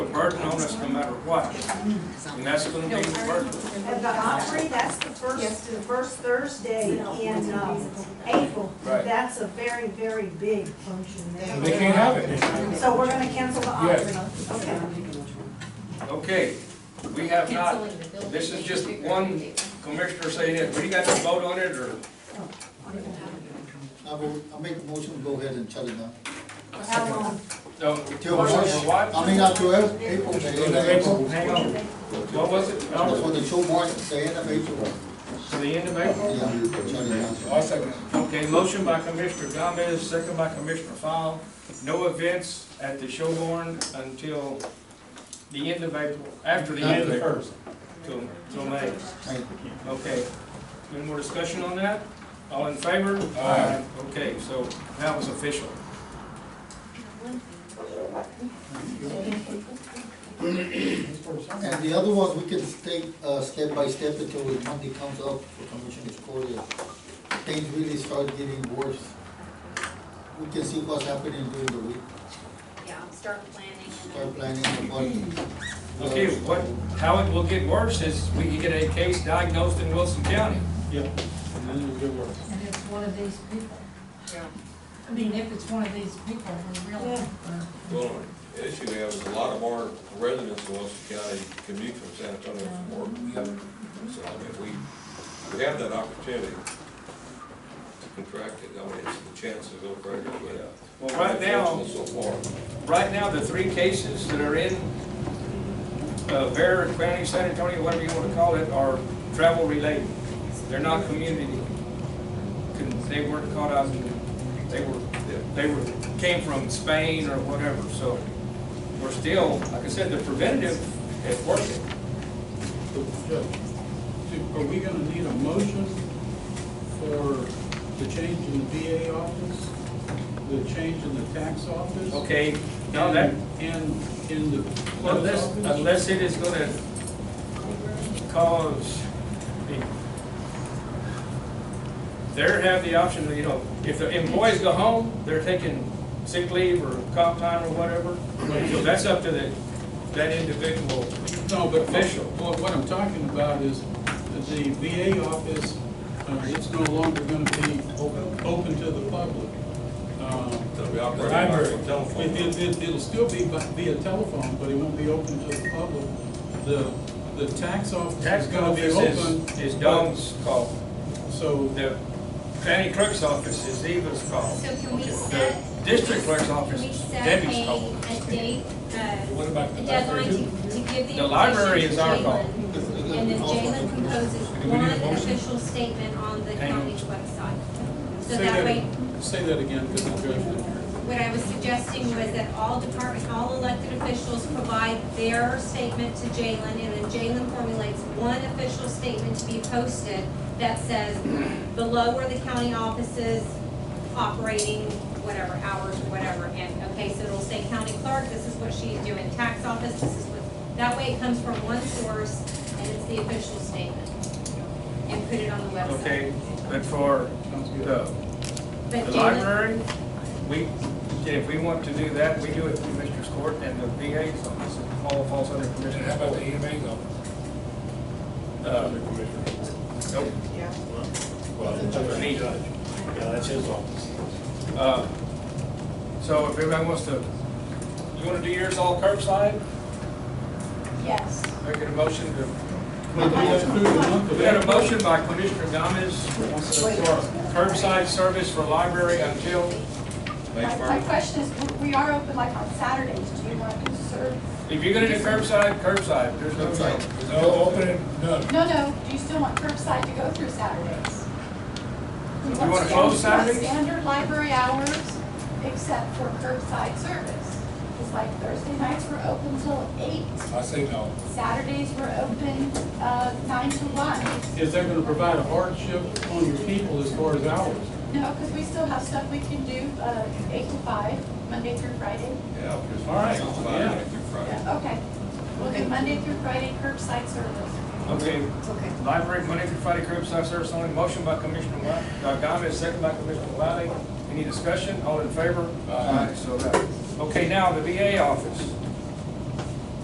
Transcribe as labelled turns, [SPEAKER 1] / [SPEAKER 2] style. [SPEAKER 1] burden on us no matter what. And that's gonna be the burden.
[SPEAKER 2] At the Opry, that's the first, the first Thursday in uh,
[SPEAKER 3] um,
[SPEAKER 2] April.
[SPEAKER 1] Right.
[SPEAKER 2] That's a very, very big function
[SPEAKER 1] They
[SPEAKER 2] there.
[SPEAKER 1] can't have it.
[SPEAKER 2] So we're gonna cancel the Opry. Okay.
[SPEAKER 1] Okay, we have not, this is just one commissioner saying it. We got to vote on it or?
[SPEAKER 4] I will, I'll make a motion to go ahead and shut it down.
[SPEAKER 2] For how long?
[SPEAKER 1] No.
[SPEAKER 4] Till
[SPEAKER 1] What,
[SPEAKER 4] March,
[SPEAKER 1] what?
[SPEAKER 4] I mean, not till April, April, the end of April.
[SPEAKER 1] Hang on. What was it?
[SPEAKER 4] That's
[SPEAKER 1] No,
[SPEAKER 4] what the show march, the end of April.
[SPEAKER 1] to the end of April?
[SPEAKER 4] Yeah, shut it down.
[SPEAKER 1] I'll second. Okay, motion by Commissioner Gomez, second by Commissioner Fowle. No events at the Showborn until the end of April, after the end of April. Till, till May.
[SPEAKER 4] Hey,
[SPEAKER 1] Okay. Any more discussion on that? All in favor? Aye. Okay, so that was official.
[SPEAKER 4] And the other ones, we can take, uh, step by step until the Monday comes up for Commissioner's Court. If Things really start getting worse. We can see what's happening during the week,
[SPEAKER 3] Yeah, start planning
[SPEAKER 4] start
[SPEAKER 3] and then.
[SPEAKER 4] planning the party.
[SPEAKER 1] Okay, what, how it will get worse is we get a case diagnosed in Wilson County.
[SPEAKER 5] Yeah, and then it'll get worse.
[SPEAKER 6] And it's one of these people. I mean, if it's one of these people, we're really. uh,
[SPEAKER 7] Well, the issue we have is a lot of our residents in Wilson County commute from San Antonio for work. So, I mean, we, we have that opportunity to contract it, I mean, it's the chance to go further, but.
[SPEAKER 1] Well, right now,
[SPEAKER 7] Unfortunately, So far.
[SPEAKER 1] right now, the three cases that are in uh, Bear County, San Antonio, whatever you want to call it, are travel related. They're not community. Couldn't- They weren't caught out, in- they were, they were, came from Spain or whatever, so we're still, like I said, the preventative is working.
[SPEAKER 5] But Judge, do- are we gonna need a motion for the change in the VA office, the change in the tax office?
[SPEAKER 1] Okay, now that,
[SPEAKER 5] And in the clerk's
[SPEAKER 1] Unless,
[SPEAKER 5] office?
[SPEAKER 1] unless it is gonna cause, I mean, they're have the option, you know, if the employees go home, they're taking sick leave or comp time or whatever. So that's up to the, that individual.
[SPEAKER 5] No, but
[SPEAKER 1] Official.
[SPEAKER 5] what, what I'm talking about is that the VA office, uh, it's no longer gonna be open, open to the public. Um,
[SPEAKER 7] So we operate
[SPEAKER 5] I
[SPEAKER 7] our
[SPEAKER 5] agree.
[SPEAKER 7] telephone.
[SPEAKER 5] It, it, it'll still be by- via telephone, but it won't be open to the public. The, the tax office
[SPEAKER 1] Tax
[SPEAKER 5] is gonna be
[SPEAKER 1] office
[SPEAKER 5] open.
[SPEAKER 1] is, is Dom's call.
[SPEAKER 5] but- So,
[SPEAKER 1] The county clerk's office is Eva's call.
[SPEAKER 3] So can we
[SPEAKER 1] The
[SPEAKER 3] set?
[SPEAKER 1] district clerk's office
[SPEAKER 3] Can we
[SPEAKER 1] is
[SPEAKER 3] set
[SPEAKER 1] Debbie's
[SPEAKER 3] a,
[SPEAKER 1] call.
[SPEAKER 3] a date, uh,
[SPEAKER 5] what about
[SPEAKER 3] a
[SPEAKER 5] the
[SPEAKER 3] deadline
[SPEAKER 5] library?
[SPEAKER 3] to, to give the.
[SPEAKER 1] The library
[SPEAKER 3] information
[SPEAKER 1] is
[SPEAKER 3] to
[SPEAKER 1] our call.
[SPEAKER 3] Jalen?
[SPEAKER 4] If- if- if-
[SPEAKER 3] And then Jalen composes
[SPEAKER 1] Do we need a
[SPEAKER 3] one
[SPEAKER 1] motion?
[SPEAKER 3] official statement on the
[SPEAKER 1] Hang on.
[SPEAKER 3] county's website. So
[SPEAKER 5] Say
[SPEAKER 3] that way,
[SPEAKER 5] Say that again, because I'm judging.
[SPEAKER 3] what I was suggesting was that all department, all elected officials provide their statement to Jalen, and then Jalen formulates one official statement to be posted that says, below are the county offices operating, whatever hours or whatever, and, okay, so it'll say county clerk, this is what she's doing, tax office, this is what, that way it comes from one source, and it's the official statement. And put it on the website.
[SPEAKER 1] Okay, but for
[SPEAKER 5] Sounds good.
[SPEAKER 1] the
[SPEAKER 3] But
[SPEAKER 1] The
[SPEAKER 3] Jalen,
[SPEAKER 1] library, we, if we want to do that, we do it through Commissioner's Court and the VA's office, it all falls under Commissioner's Court.
[SPEAKER 8] EMA's office?
[SPEAKER 1] Uh, nope.
[SPEAKER 8] Well, that's
[SPEAKER 1] Under me.
[SPEAKER 8] judge. Yeah, that's his office.
[SPEAKER 1] Uh, So if everybody wants to, you want to do yours all curbside,
[SPEAKER 2] Yes.
[SPEAKER 1] make it a motion to,
[SPEAKER 5] But we have through the month of
[SPEAKER 1] we had a
[SPEAKER 5] April.
[SPEAKER 1] motion by Commissioner Gomez for curbside service for library until,
[SPEAKER 7] May
[SPEAKER 9] My my
[SPEAKER 7] first.
[SPEAKER 9] question is, we are open like on Saturdays, do you want to serve?
[SPEAKER 1] if you're going to do curbside, curbside, there's no
[SPEAKER 4] Curbside.
[SPEAKER 1] deal.
[SPEAKER 8] No, open it, no.
[SPEAKER 9] No, no, do you still want curbside to go through Saturdays? We
[SPEAKER 1] You
[SPEAKER 9] want
[SPEAKER 1] wanna
[SPEAKER 9] stand-
[SPEAKER 1] close
[SPEAKER 9] we want
[SPEAKER 1] Saturdays?
[SPEAKER 9] Standard library hours, except for curbside service. It's like Thursday nights were open till eight,
[SPEAKER 8] I say no.
[SPEAKER 9] Saturdays were open uh, nine to one.
[SPEAKER 5] Is that gonna provide a hardship on your people as far as hours?
[SPEAKER 9] No, because we still have stuff we can do uh, eight to five, Monday through Friday.
[SPEAKER 7] Yeah, because.
[SPEAKER 5] All right,
[SPEAKER 7] It's
[SPEAKER 5] yeah.
[SPEAKER 7] Friday, Monday through Friday.
[SPEAKER 9] Yeah, okay. We'll do Monday through Friday curbside service.
[SPEAKER 1] Okay,
[SPEAKER 3] okay.
[SPEAKER 1] Library, Monday through Friday curbside service only. Motion by Commissioner Wa- uh, Gomez, second by Commissioner Wiley. Any discussion? All in favor? Aye. So, that- okay, now uh, the VA office.